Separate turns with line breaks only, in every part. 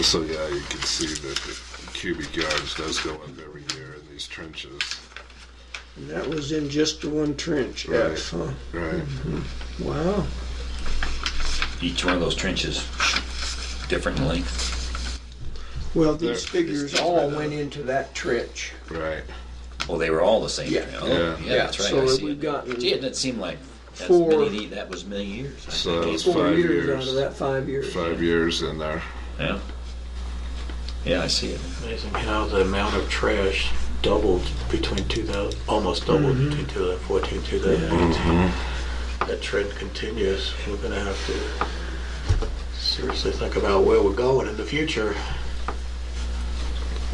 So, yeah, you can see that the cubic yards does go up every year in these trenches,
And That was in just the one trench,
Right.
F, huh?
right?
Wow.
Each one of those trenches, different in length.
Well, these
There-
figures all went into that trench.
Right.
Well, they were all the same.
Yeah.
Oh,
Yeah.
that's right.
So
I see
we've
it.
gotten
Gee, it didn't seem like that's
four-
many, that was many years. I
So
think.
it's
four
five
years,
years.
out of that five years.
Five years in there.
yeah. Yeah, I see it.
Amazing how the amount of trash doubled between 2000, almost doubled between 2014 2018.
Mm-hmm.
That trend continues. We're going to have to seriously think about where we're going in the future.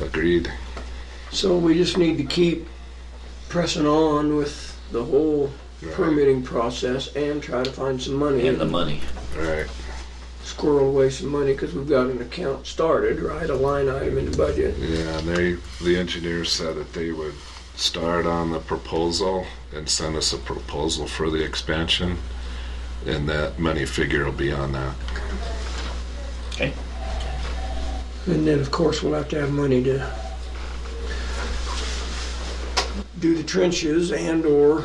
Agreed.
So we just need to keep pressing on with the whole
Right.
permitting process and try to find some money
And the
and
money.
Right.
squirrel away some money because we've got an account started, right? A line item in the budget.
Yeah, and they, the engineers said that they would start on the proposal and send us a proposal for the expansion, and that money figure will be on that.
Okay.
And then, of course, we'll have to have money to do the trenches and/or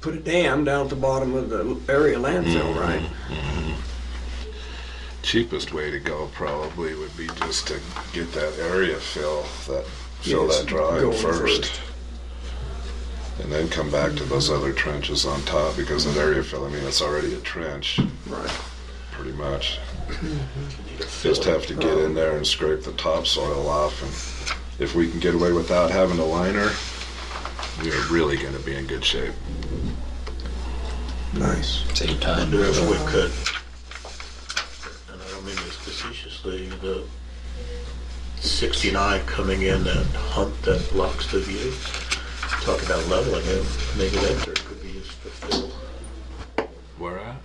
put a dam down at the bottom of the area landfill, right?
Cheapest way to go probably would be just to get that area fill, that, fill
Yes,
that drawing
going
first.
first.
And then come back to those other trenches on top, because that area fill, I mean, it's already a trench,
Right.
pretty much.
Need a
Just
fill.
have to get in there and scrape the topsoil off, and if we can get away without having a liner, we're really gonna be in good shape.
Nice.
Save time.
wonder if we could, and I don't mean this facetiously, the 69 coming in that hump that blocks the view, talk about leveling it, maybe that dirt could be used to fill.
Where at?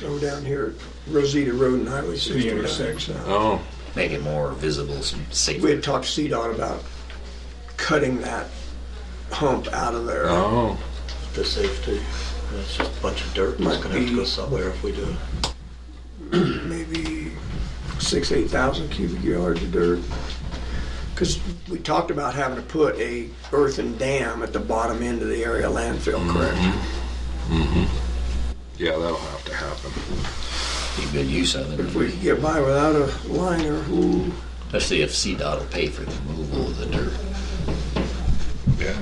Go down here at Rosita Road and Highway 69.
Oh,
Make it more visible,
We
safer.
had talked to CDOT about cutting that hump out of there.
oh,
the safety. It's just a bunch of dirt that's
Might
gonna have to go
be-
somewhere if we do.
maybe six, eight thousand cubic yards of dirt. Because we talked about having to put a earthen dam at the bottom end of the area landfill, correct?
yeah, that'll have to happen.
Be good use of
If we
it.
could get by without a liner, ooh,
Especially if CDOT will pay for the removal of the dirt.
Yeah,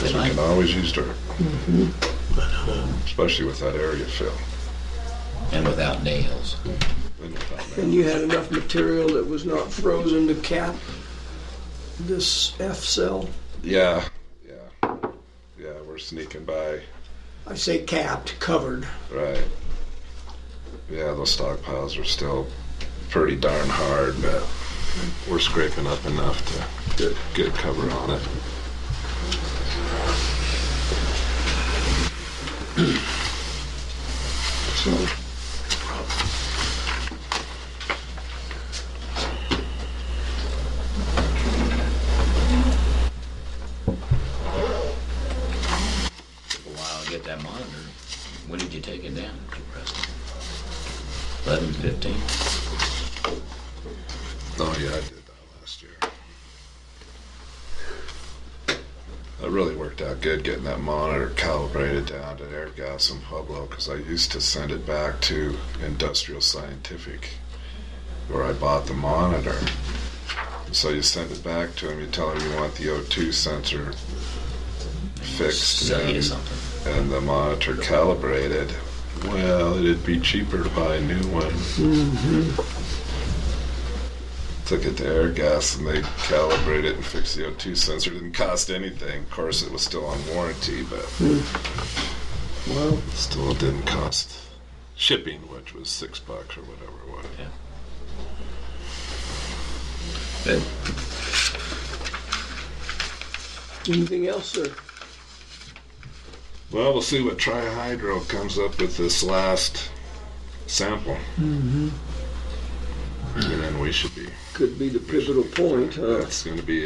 They
we
might.
can always use dirt,
But, uh,
especially with that area fill.
And without nails.
And without that-
and you had enough material that was not frozen to cap this F cell?
Yeah, yeah, yeah, we're sneaking by,
I say capped, covered.
right. Yeah, those stockpiles are still pretty darn hard, but we're scraping up enough to get, get cover on it.
So,
Wow, get that monitor. When did you take it down, Preston? Eleven fifteen?
Oh yeah, I did that last year. That really worked out good getting that monitor calibrated down to Airgas in Pueblo because I used to send it back to Industrial Scientific where I bought the monitor. So you send it back to him, you tell him you want the O2 sensor fixed
Sell you
and,
something.
and the monitor calibrated. Well, it'd be cheaper to buy a new one took it to air gas and they calibrated it and fixed the O2 sensor. Didn't cost anything. Of course, it was still on warranty, but
well,
still it didn't cost shipping, which was six bucks or whatever it was.
Good.
anything else, sir?
Well, we'll see what Trihydro comes up with this last sample. And then we should be.
Could be the pivotal point, uh, huh?
That's going to be